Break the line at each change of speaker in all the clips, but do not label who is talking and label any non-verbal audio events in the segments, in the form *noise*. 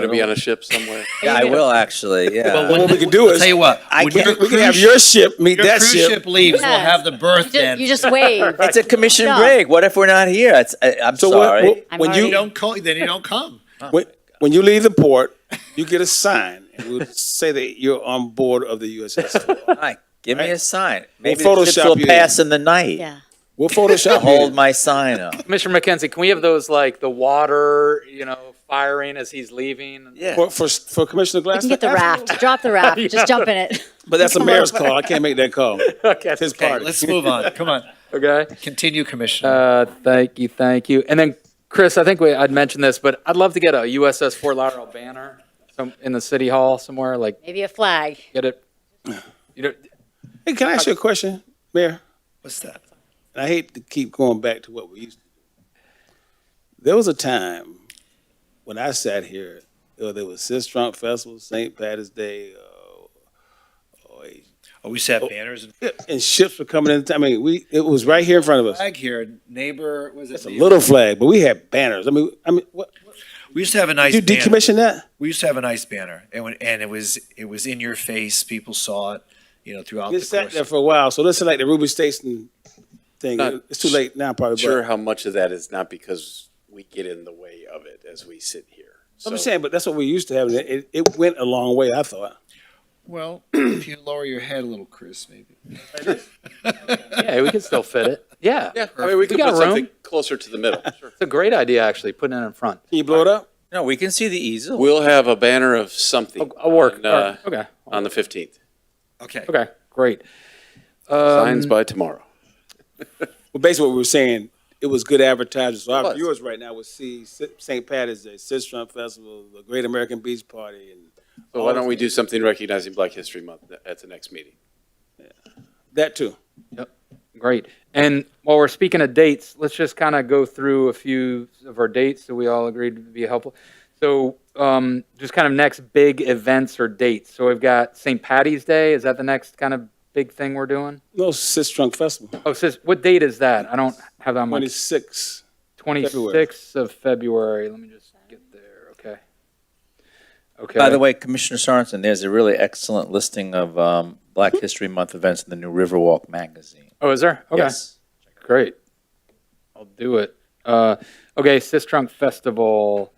Gonna be on a ship somewhere.
Yeah, I will actually, yeah.
Well, what we can do
I'll
is,
tell you what,
I
when
can,
your
we can have
cruise-
your ship meet
Your
that
cruise
ship.
ship leaves, we'll
Yes.
have the
You
birth
ju-
then.
You just wave.
It's a commission
No.
break. What if we're not here? It's, I, I'm
So when-
sorry.
when,
I'm
when
Then you
you,
don't call, then you don't come.
when, when you leave the port, you get a sign. And we'll say that you're on board of the USS.
Mike, give me a sign. Maybe the ships
Photoshop
will
you in.
pass in the night.
Yeah.
We'll Photoshop
Hold
you.
my sign up.
Commissioner McKenzie, can we have those like the water, you know, firing as he's leaving? *laughs*
Yeah.
For, for, for Commissioner
You
Glassman?
can get the raft. Drop the raft. Just jump in it. *laughs*
But that's a mayor's call. I can't make that call.
Okay.
It's his
Okay,
party.
*laughs* let's move on. Come on.
Okay.
Continue, Commissioner.
Uh, thank you, thank you. And then, Chris, I think we, I'd mentioned this, but I'd love to get a USS Fort Lauderdale banner some, in the city hall somewhere, like
Maybe a flag.
get it. You know,
Hey, can I ask you a question, Mayor?
What's that?
And I hate to keep going back to what we used to do. There was a time when I sat here, uh, there was Sis Trump Festival, St. Patrick's Day, uh, oh,
Oh, we set banners and
yeah, and ships were coming in. I mean, we it was right here in front of us.
flag here. Neighbor, was it?
It's a little flag, but we had banners. I mean, I mean, what,
We used to have a nice
you
banner.
decommissioned that?
We used to have a nice banner, and when, and it was it was in your face. People saw it, you know, throughout
It
the
sat
course.
there for a while, so this is like the Ruby Station thing.
Not
It's too late now, probably.
*laughs*
but-
sure how much of that is not because we get in the way of it as we sit here.
I'm
So-
just saying, but that's what we used to have. and It, it went a long way, I thought.
well, *clears throat* if you lower your head a little, Chris, maybe.
yeah, we could still fit it. Yeah.
Yeah, I mean, we could
got
put something
room.
closer to the
*laughs*
middle. Sure.
It's a great idea, actually, putting it in front.
Can you blow it up?
No, we can see the easel.
We'll have a banner of something.
I'll work.
on, uh,
All right. Okay.
On the 15th.
Okay.
Okay, great. Um,
Signs by tomorrow.
Well, basically what we were saying, it was good advertising. So our
was.
viewers right now would see Si- St. Patty's Day, Sistrum Festival, the Great American Beach Party, and
So why don't we do something recognizing Black History Month at the next meeting?
that too.
Great. And while we're speaking of dates, let's just kind of go through a few of our dates that we all agreed would be helpful. So, um, just kind of next big events or dates. So we've got St. Patty's Day. Is that the next kind of big thing we're doing?
No, Sistrum Festival,
Oh, sis, what date is that? I don't have that much.
26.
26th of February. Let me just get there. Okay. Okay.
By the way, Commissioner Sorensen, there's a really excellent listing of um, Black History Month events in the new Riverwalk magazine.
Oh, is there? Okay.
Yes.
Great. I'll do it. Uh, okay, Sis Trunk Festival.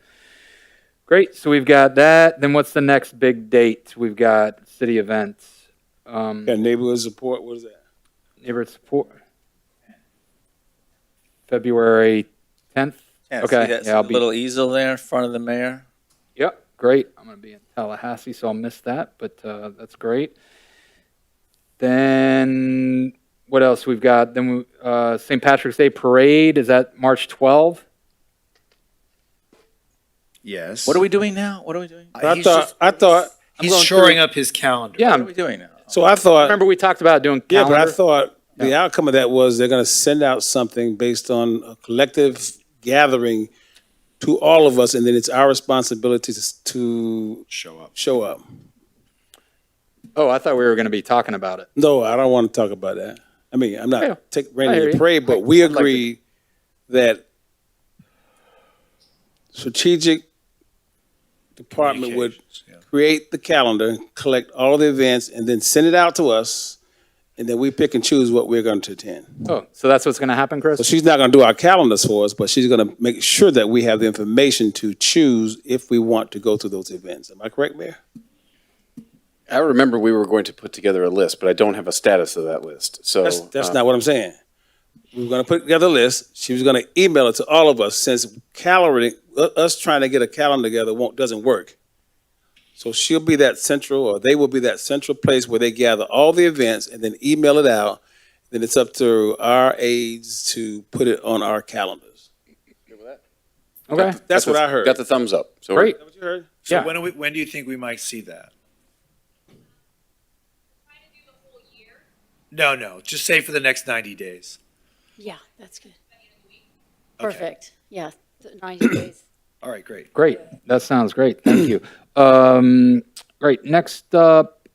Great. So we've got that. Then what's the next big date? We've got city events, um,
Got neighborhood support, what is that?
neighborhood support. February 10th.
Yeah,
Okay,
See that
yeah, I'll be-
little easel there in front of the mayor?
Yep. Great. I'm going to be in Tallahassee, so I'll miss that, but uh, that's great. Then what else we've got? Then we, uh, St. Patrick's Day Parade. Is that March 12th?
Yes.
What are we doing now? What are we doing?
Uh,
I
he's
thought,
just-
I thought,
he's
going
shoring up his calendar.
Yeah,
What
I'm
are we doing now?
so I thought,
Remember, we talked about doing
Uh, yeah,
calendar.
but I thought the outcome of that was they're going to send out something based on a collective gathering to all of us, and then it's our responsibility to, to
Show up.
show up.
oh, I thought we were going to be talking about it.
No, I don't want to talk about that. I mean, I'm
Yeah.
not take
I hear
rain
you.
and pray, but we
I'd like to-
agree that strategic department would
Communications, yeah.
create the calendar, collect all the events, and then send it out to us, and then we pick and choose what we're going to attend.
Oh, so that's what's going to happen, Chris?
So she's not going to do our calendars for us, but she's going to make sure that we have the information to choose if we want to go to those events. Am I correct, Mayor?
I remember we were going to put together a list, but I don't have a status of that list. So.
That's, that's
uh,
not what I'm saying. We were gonna put together a list. She was gonna email it to all of us since calendaring, u- us trying to get a calendar together won't, doesn't work. So she'll be that central, or they will be that central place where they gather all the events and then email it out. Then it's up to our aides to put it on our calendars.
okay.
got
That's what
the-
I heard.
Got the thumbs up. So
Great.
Is that what you heard?
So
Yeah.
when, do we, when do you think we might see that? No, no. Just say for the next 90 days.
Yeah, that's good.
Okay.
Perfect. Yeah, th- 90 days.
All right, great.
Great. That sounds great. Thank you. *clears throat* Um, great. Next up,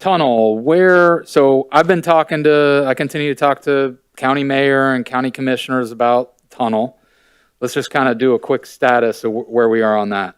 tunnel. Where? So I've been talking to, I continue to talk to county mayor and county commissioners about tunnel. Let's just kind of do a quick status of wh- where we are on that.